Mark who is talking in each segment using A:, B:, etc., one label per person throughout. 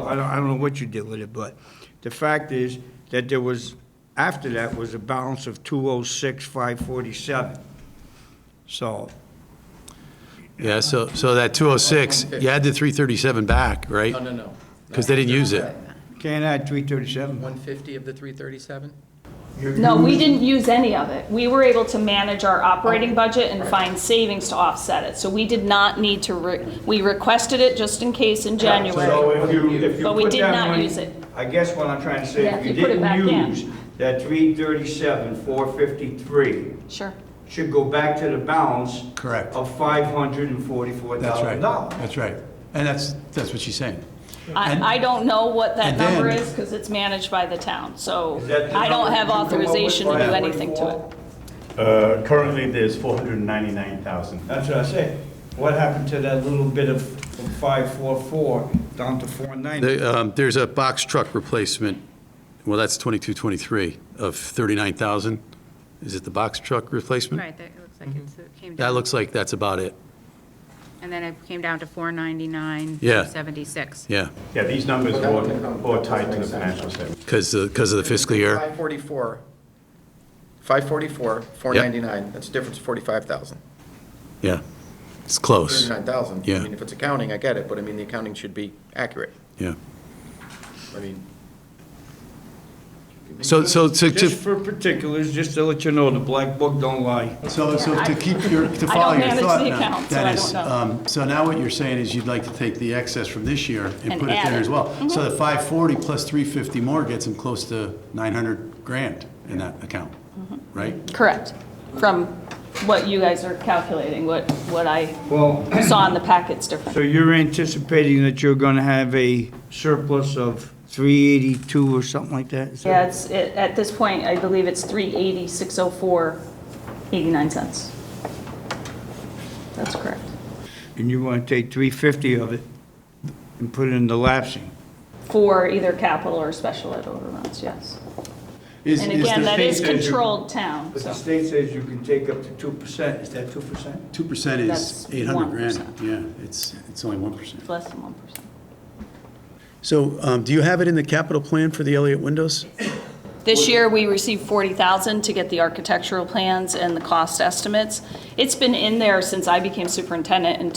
A: I don't, I don't know what you did with it, but the fact is that there was, after that was a balance of two oh six, five forty-seven. So,
B: Yeah, so, so that 206, you had the 337 back, right?
C: No, no, no.
B: Because they didn't use it.
A: can't add three thirty-seven.
C: 150 of the 337?
D: No, we didn't use any of it. We were able to manage our
A: Oh.
D: operating budget and find savings to offset it. So we did not need to, re- we requested it just in case in
A: So
D: January.
A: if you, if you
D: But we
A: put
D: did
A: that
D: not
A: money-
D: use it.
A: I guess what I'm trying to say,
D: Yeah,
A: if
D: if
A: you
D: you put it back
A: didn't
D: in.
A: use that three thirty-seven, four fifty-three,
D: Sure.
A: should go back to the balance.
B: Correct.
A: Of five hundred and forty-four
B: That's right.
A: thousand dollars.
B: That's right. And that's, that's what she's saying. And-
D: I, I don't know what that
B: and then-
D: number is because it's managed by the town. So
A: Is that the
D: I don't
A: number
D: have
A: you come up with,
D: authorization to do anything to
A: 544?
D: it.
E: Uh, Currently, there's 499,000.
A: That's what I said. What happened to that little bit of from 544 down to 490?
B: The, um, There's a box truck replacement, well, that's 2223 of 39,000. Is it the box truck replacement?
F: Right, that it looks like it's, it came
B: That
F: down,
B: looks like that's about it,
F: and then it came down to 499,
B: Yeah.
F: 76.
B: yeah,
E: Yeah, these numbers are all- all tied to the financial statement.
B: because, because of the fiscal year.
C: 544, 544, 499, that's a difference of 45,000,
B: Yeah, it's close,
C: 39,000.
B: Yeah.
C: I mean, if it's accounting, I get it, but I mean, the accounting should be accurate.
B: yeah.
C: I mean,
B: So, so to,
A: Just
B: to-
A: for particulars, just to let you know, the black book don't lie.
B: so so to keep your, to
D: I
B: follow
D: don't
B: your
D: manage
B: thought
D: the
B: now,
D: account, so I
B: Dennis,
D: don't know.
B: um, so now what you're saying is you'd like to take the excess from this year and
D: And
B: put it
D: add
B: there
D: it. Mm-hmm.
B: as well. So the 540 plus 350 more gets him close to 900 grand in that account,
D: Mm-hmm.
B: right?
D: Correct. From what you guys are calculating, what, what I
A: Well,
D: saw in the packet's different.
A: so you're anticipating that you're going to have a surplus of 382 or something like that? Is that-
D: Yeah, it's, it- at this point, I believe it's 380, 604, 89 oh cents. That's correct.
A: And you want to take 350 of it and put it in the lapsing?
D: For either capital or special ed overruns, yes.
B: Is-
D: And
B: is
D: again,
B: the
D: that is
B: thing-
A: that you-
D: controlled town,
A: But the
D: so.
A: state says you can take up to 2%. Is that 2%?
B: 2% is
D: That's
B: 800 grand,
D: 1%.
B: yeah, it's, it's only 1%.
D: Less than 1%.
B: So um, do you have it in the capital plan for the Elliott windows?
D: This year, we received 40,000 to get the architectural plans and the cost estimates. It's been in there since I became superintendent in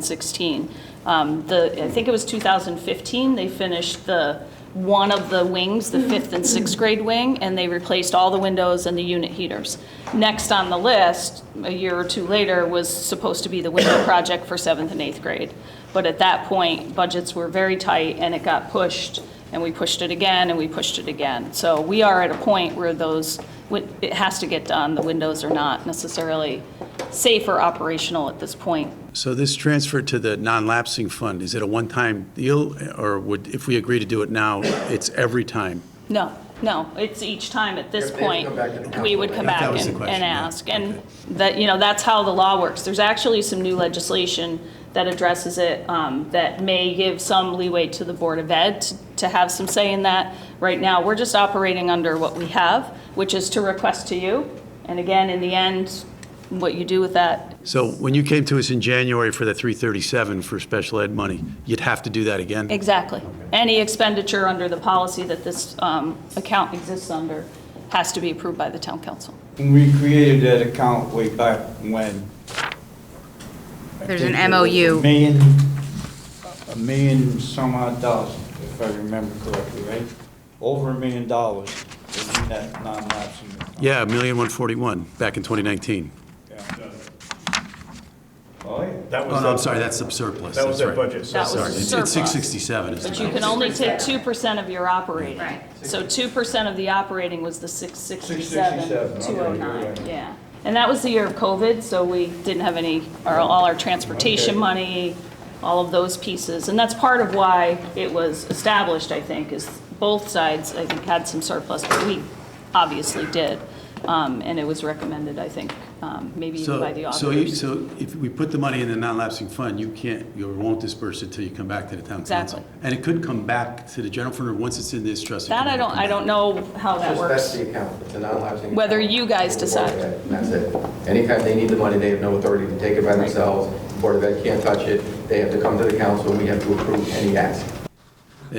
D: 2016. Um, The, I think it was 2015, they finished the, one of the wings, the fifth and sixth grade wing, and they replaced all the windows and the unit heaters. Next on the list, a year or two later, was supposed to be the window project for seventh and eighth grade. But at that point, budgets were very tight, and it got pushed and we pushed it again, and we pushed it again. So we are at a point where those, it has to get done, the windows are not necessarily safe or operational at this point.
B: So this transfer to the non-lapsing fund, is it a one-time deal? Or would, if we agree to do it now, it's every time?
D: No, no, it's each time at this
C: If they have to
D: point,
C: come back to the
D: we
C: council.
D: would come
B: That- that
D: back
B: was the
D: and
B: question,
D: and
B: yeah.
D: ask. And that, you know, that's how the law works. There's actually some new legislation that addresses it um, that may give some leeway to the Board of Ed t- to have some say in that. Right now, we're just operating under what we have, which is to request to you. And again, in the end, what you do with that,
B: So when you came to us in January for the 337 for special ed money, you'd have to do that again?
D: exactly. Any expenditure under the policy that this um, account exists under has to be approved by the town council.
A: We created that account way back when. I
F: There's
A: think
F: an
A: it was
F: MOU.
A: A million, a million some odd dollars, if I remember correctly, right? Over a million dollars was in that non-lapsing account.
B: Yeah, a million one forty-one back in 2019.
A: Yeah. Oh, yeah.
E: That
B: Oh,
E: was
B: no, I'm
E: the-
B: sorry, that's the surplus,
E: That
B: that's
E: was their
B: right.
E: budget.
D: That was
B: Sorry, it's
D: surplus.
B: it's 667 is the
D: But you can
B: balance.
D: only take two percent of your operating.
F: Right.
D: So two percent of the operating was the six sixty-seven,
A: 667,
D: two oh
A: okay,
D: nine,
A: yeah.
D: yeah. And that was the year of COVID, so we didn't have any, our, all our transportation
A: Okay.
D: money, all of those pieces. And that's part of why it was established, I think, is both sides, I think, had some surplus, but we obviously did. Um, and it was recommended, I think, um, maybe even by the
B: So, so you,
D: auditors.
B: so if we put the money in the non-lapsing fund, you can't, you won't disperse it till you come back to the town council.
D: Exactly.
B: And it could come back to the general fund, or once it's in this trust. it
D: That
B: could
D: I
B: never
D: don't,
B: come
D: I
B: back.
D: don't know how that
C: that's
D: works.
C: the account, it's a non-lapsing.
D: Whether
C: account.
D: you guys decide.
C: Board of Ed, That's it. Anytime they need the money, they have no authority to take it by themselves. Board of Ed can't touch it. They have to come to the council. We have to approve any ask.